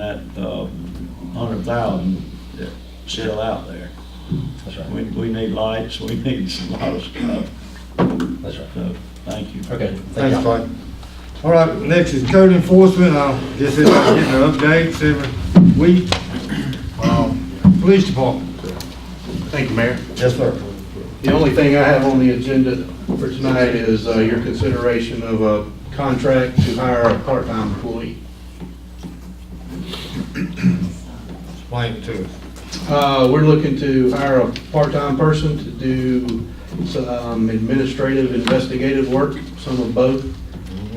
that, uh, hundred thousand that's still out there. That's We, right. we need lights, we need a lot of stuff, That's right. so, thank you. Okay. thank y'all. Thanks, Clyde. All right, next is code enforcement, I'll just, i getting an updates every week. Um, Police department. Thank you, Mayor. Yes, sir. The only thing I have on the agenda for tonight is uh, your consideration of a contract to hire a part-time employee. Explain it to us. Uh, We're looking to hire a part-time person to do some administrative investigative work, some of both.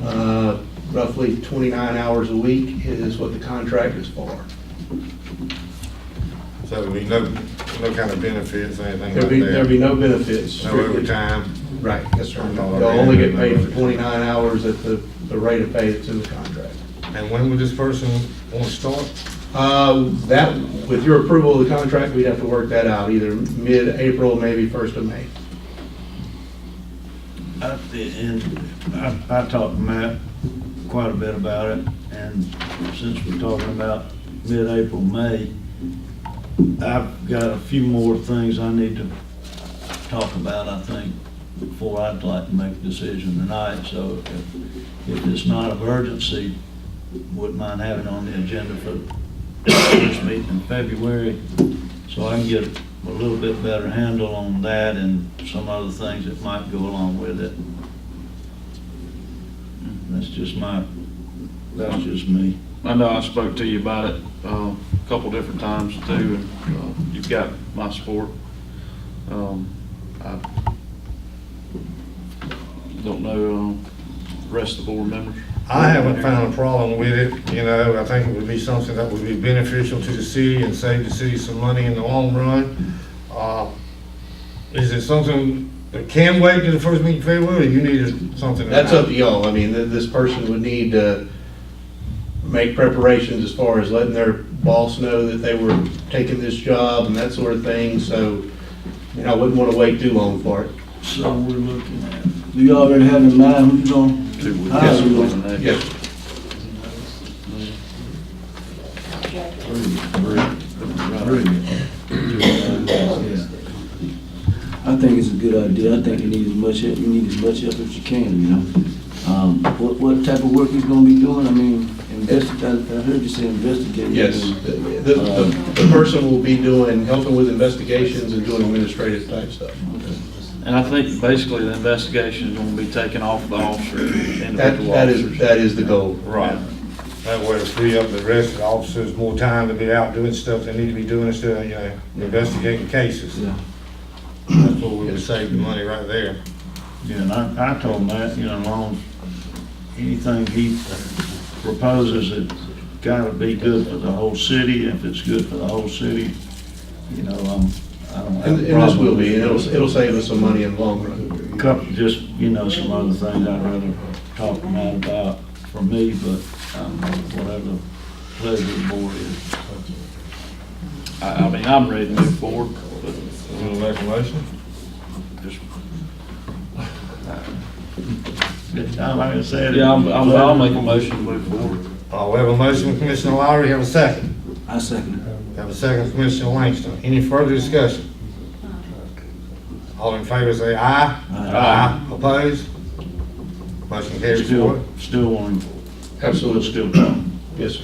Uh, Roughly 29 hours a week is what the contract is for. So we no, no kind of benefits, anything There'd be, there'd be like that? no benefits. No strictly- overtime? Right, yes, sir. No They'll only get paid for overtime. 29 hours at the, the rate of pay that's in the contract. And when would this person want to start? Uh, That, with your approval of the contract, we'd have to work that out, either mid-April, maybe first of May. I- And I, I talked to Matt quite a bit about it, and since we're talking about mid-April, May, I've got a few more things I need to talk about, I think, before I'd like to make a decision tonight, so if, if it's not of urgency, wouldn't mind having it on the agenda for this meeting in February, so I can get a little bit better handle on that and some other things that might go along with it. That's just my, that's just me. I know I spoke to you about it uh, a couple different times too, and uh, you've got my support. Um, I don't know uh, the rest of the board members. I haven't found a problem with it, you know, I think it would be something that would be beneficial to the city and save the city some money in the long run. Uh, Is it something that can wait to the first meeting in February, or you need something? That's up to y'all, I mean, th- this person would need to make preparations as far as letting their boss know that they were taking this job and that sort of thing, so, you know, I wouldn't want to wait too long for it. So we're looking at. Do you already have in mind who's on? Two weeks. Yes, sir. Wasn't that- Three. Yeah. I think it's a good idea. I think you need as much, help- you need as much help as you can, you know? Um, what, what type of work he's gonna be doing? I mean, investigate, I heard you say investigate. The, the, the person will be doing, helping with investigations and doing administrative type stuff. And I think basically the investigation is going to be taken off the officer, That, individual that is, officers. that is the goal. Right. That way to free up the rest of the officers, more time to be out doing stuff they need to be doing instead of, you know, investigating cases. Yeah. That's what we would save the money right there. Yeah, and I, I told Matt, you know, long, anything he proposes, it's gotta be good for the whole city. If it's good for the whole city, you know, um, I don't have And, a problem. and this will be, with and it. it'll, it'll save us some money in the long run. Couple, just, you know, some other things I'd rather talk to Matt about for me, but, um, whatever the pleasure of the board is. I I mean, I'm ready to move forward, but Wanna make a motion? just, Good time, uh, Like I said. yeah, I'm- I'm- I'll make a motion to move forward. Uh, we have a motion from Commissioner Lowry, have a second. I second it. Have a second from Commissioner Langston. Any further discussion? All in favor say aye. Aye. Opposed? Motion carries Still, four. still wanting, Absolutely. still talking. Yes, sir.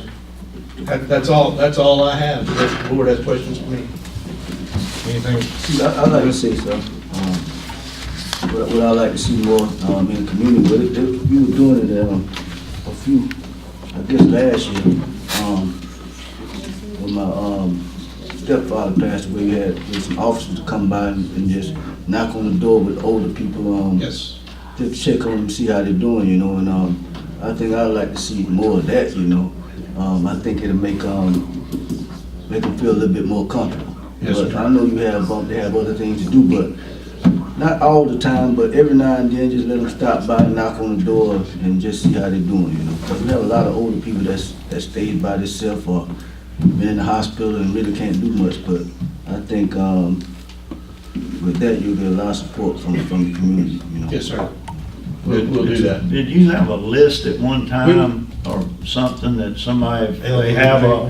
That, that's all, that's all I have. If the board has questions for me. Anything See, I, I like to say so. Um, What, what I like to see more, um, in the community, what it, they- we were doing it, um, a few, I guess last year, um, when my, um, stepfather passed away, we had, we had some officers come by and and just knock on the door with older people, um, Yes. just check on them, see how they're doing, you know, and um, I think I'd like to see more of that, you know. Um, I think it'll make um, make them feel a little bit more comfortable. Yes, but sir. I know you have um, they have other things to do, but not all the time, but every now and then, just let them stop by, knock on the door, and just see how they're doing, you know. Because we have a lot of older people that's that stays by themselves or been in the hospital and really can't do much. But I think um, with that, you'll get a lot of support from from the community, you know. Yes, sir. We'll, we'll do that. Did you have a list at one time or something that somebody, Yeah, they have a,